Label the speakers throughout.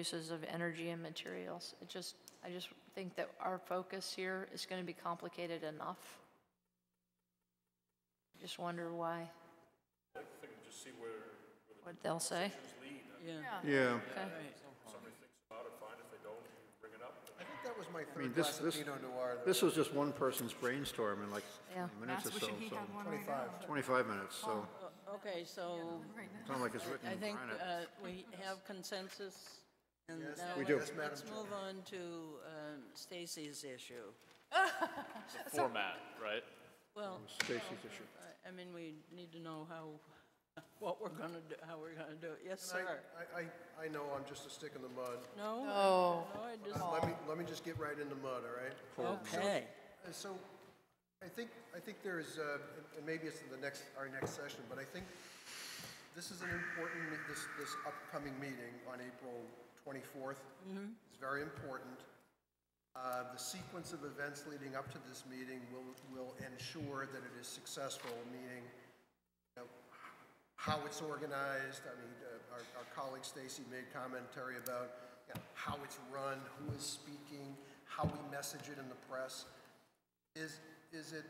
Speaker 1: uses of energy and materials. It just, I just think that our focus here is going to be complicated enough. Just wonder why. What they'll say.
Speaker 2: Yeah,
Speaker 3: I think that was my
Speaker 2: I mean,
Speaker 3: third
Speaker 2: this,
Speaker 3: glass of
Speaker 2: this,
Speaker 3: Pinot Noir, that
Speaker 2: this was just one person's brainstorm in like
Speaker 1: Yeah.
Speaker 2: 20 minutes or so, so,
Speaker 3: twenty-five.
Speaker 2: 25 minutes,
Speaker 4: Uh,
Speaker 2: so
Speaker 4: Okay, so
Speaker 2: it's not like it's
Speaker 4: I
Speaker 2: written in
Speaker 4: think
Speaker 2: granite.
Speaker 4: uh, we have consensus. and now
Speaker 2: We do.
Speaker 4: let's-
Speaker 2: Yes,
Speaker 4: Let's move on to um, Stacy's issue.
Speaker 5: format, right?
Speaker 4: Well,
Speaker 2: Stacy's issue.
Speaker 4: I- I mean, we need to know how, what we're going to do, how we're going to do it. Yes,
Speaker 3: I,
Speaker 4: sir.
Speaker 3: I, I- I know I'm just a stick in the mud.
Speaker 4: No? No. I just,
Speaker 3: Let me, let me just get right in the mud, all right?
Speaker 4: okay.
Speaker 3: Uh, So I think, I think there is, uh, and- and maybe it's in the next, our next session, but I think this is an important, me- this, this upcoming meeting on April 24th
Speaker 2: Mm-hmm.
Speaker 3: is very important. Uh, The sequence of events leading up to this meeting will, will ensure that it is successful, meaning you know, how it's organized. I mean, uh, our, our colleague Stacy made commentary about you know, how it's run, who is speaking, how we message it in the press. Is, is it,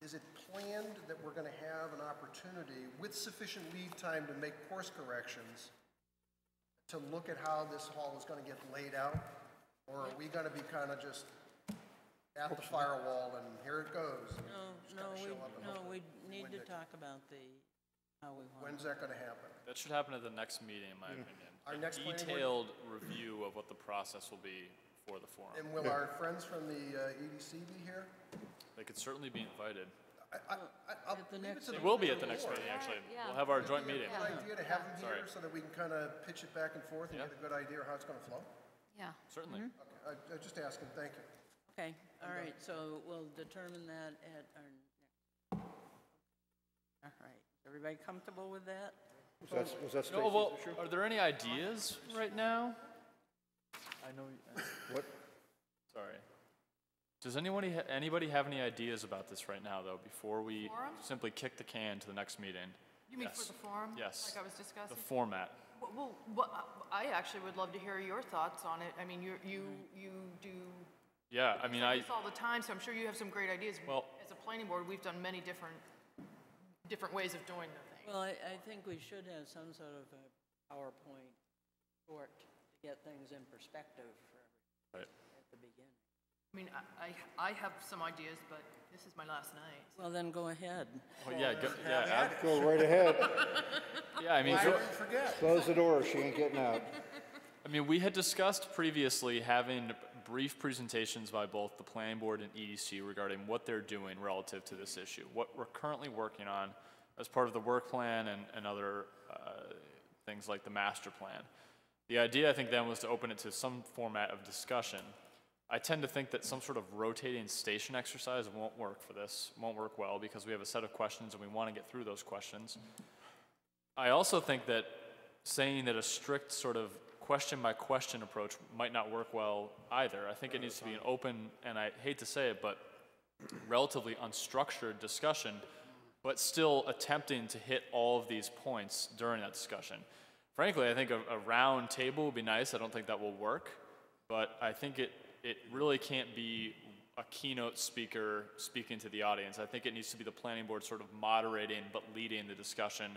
Speaker 3: is it planned that we're going to have an opportunity with sufficient lead time to make course corrections to look at how this hall is going to get laid out? Or are we going to be kind of just at the firewall and here it goes? and just
Speaker 4: No,
Speaker 3: kinda
Speaker 4: we,
Speaker 3: show up and
Speaker 4: no,
Speaker 3: hope
Speaker 4: we
Speaker 3: that-
Speaker 4: need to
Speaker 3: when it-
Speaker 4: talk about the, how we want.
Speaker 3: When's that going to happen?
Speaker 5: That should happen at the next meeting, in my opinion.
Speaker 3: Our
Speaker 5: A
Speaker 3: next planning board-
Speaker 5: Detailed review of what the process will be for the forum.
Speaker 3: And will our friends from the uh, EDC be here?
Speaker 5: They could certainly be invited.
Speaker 3: I- I- I- I'll
Speaker 4: At the
Speaker 3: leave it
Speaker 4: next
Speaker 3: to the
Speaker 5: It will be at the
Speaker 3: board.
Speaker 5: next meeting, actually.
Speaker 1: yeah.
Speaker 5: We'll have our joint
Speaker 3: It'd be
Speaker 5: meeting.
Speaker 3: a Good idea to have them here
Speaker 5: Sorry.
Speaker 3: so that we can kind of pitch it back and forth and
Speaker 5: Yeah.
Speaker 3: get a good idea how it's going to flow.
Speaker 1: Yeah.
Speaker 5: Certainly.
Speaker 3: Okay, I- I'm just asking, thank you.
Speaker 4: Okay, all right, so we'll determine that at our next. All right, everybody comfortable with that?
Speaker 2: Was that, was that Stacy's
Speaker 5: No, well,
Speaker 2: issue?
Speaker 5: are there any ideas right now? I know, you-
Speaker 2: What?
Speaker 5: sorry. Does anyone, ha- anybody have any ideas about this right now, though, before we
Speaker 6: Forum?
Speaker 5: simply kick the can to the next meeting?
Speaker 6: You mean for
Speaker 5: Yes.
Speaker 6: the forum?
Speaker 5: Yes.
Speaker 6: Like I was
Speaker 5: The
Speaker 6: discussing?
Speaker 5: format.
Speaker 6: Well, Well, what- I actually would love to hear your thoughts on it. I mean, you, you, you do
Speaker 5: Yeah, Mm-hmm. I mean, I,
Speaker 6: this all the time, so I'm sure you have some great ideas.
Speaker 5: Well-
Speaker 6: As a planning board, we've done many different, different ways of doing the thing.
Speaker 4: Well, I, I think we should have some sort of a PowerPoint short to get things in perspective for everybody
Speaker 5: right.
Speaker 4: at the beginning.
Speaker 6: I mean, I, I I have some ideas, but this is my last night.
Speaker 4: Well, then go ahead.
Speaker 5: Oh, yeah, go- yeah, ab-
Speaker 2: Go right ahead.
Speaker 5: yeah, I mean, go-
Speaker 2: Close the door, she ain't getting out.
Speaker 5: I mean, we had discussed previously having brief presentations by both the planning board and EDC regarding what they're doing relative to this issue, what we're currently working on as part of the work plan and, and other uh, things like the master plan. The idea, I think, then was to open it to some format of discussion. I tend to think that some sort of rotating station exercise won't work for this, won't work well, because we have a set of questions and we want to get through those questions. I also think that saying that a strict sort of question by question approach might not work well either. I think it needs to be an open, and I hate to say it, but relatively unstructured discussion, but still attempting to hit all of these points during that discussion. Frankly, I think a, a round table would be nice. I don't think that will work, but I think it, it really can't be a keynote speaker speaking to the audience. I think it needs to be the planning board sort of moderating but leading the discussion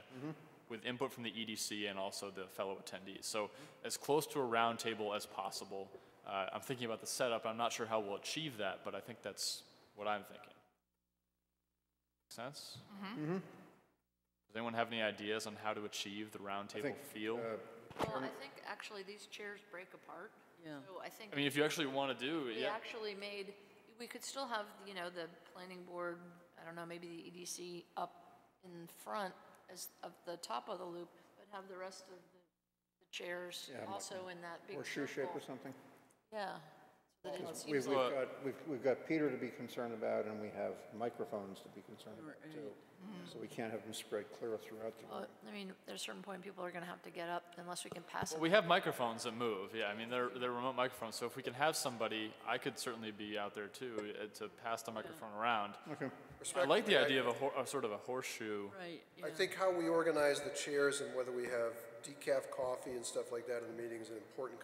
Speaker 5: with input from the EDC and also the fellow attendees. So as close to a round table as possible. Uh, I'm thinking about the setup. I'm not sure how we'll achieve that, but I think that's what I'm thinking. Make sense? Mm-hmm. Does anyone have any ideas on how to achieve the round table
Speaker 2: think,
Speaker 5: feel?
Speaker 1: Well, I think actually these chairs break apart.
Speaker 4: Yeah.
Speaker 1: So I think
Speaker 5: I mean, if you actually want to do,
Speaker 1: we
Speaker 5: yeah.
Speaker 1: actually made, we could still have, you know, the planning board, I don't know, maybe the EDC up in front as, of the top of the loop, but have the rest of the the chairs
Speaker 2: Yeah, I'm
Speaker 1: also in that big
Speaker 2: Or shoe shape
Speaker 1: circle.
Speaker 2: or something?
Speaker 1: Yeah. So that it
Speaker 2: We've,
Speaker 1: seems
Speaker 2: we've
Speaker 1: like,
Speaker 2: got, we've, we've got Peter to be concerned about, and we have microphones to be concerned about, too.
Speaker 4: Mm-hmm.
Speaker 2: So we can't have them spread clear throughout the
Speaker 4: Uh,
Speaker 2: room.
Speaker 1: well, uh, I mean, there's a certain point people are gonna have to get up unless we can pass it.
Speaker 5: We have microphones that move. Yeah, I mean, they're, they're remote microphones. So if we can have somebody, I could certainly be out there too uh, to pass the microphone around.
Speaker 2: Okay.
Speaker 5: I like
Speaker 3: Respectfully,
Speaker 5: the
Speaker 3: I-
Speaker 5: idea of a, hor- a sort of a horseshoe.
Speaker 4: Right,
Speaker 3: I
Speaker 4: yeah.
Speaker 3: think how we organize the chairs and whether we have decaf coffee and stuff like that in the meeting is an important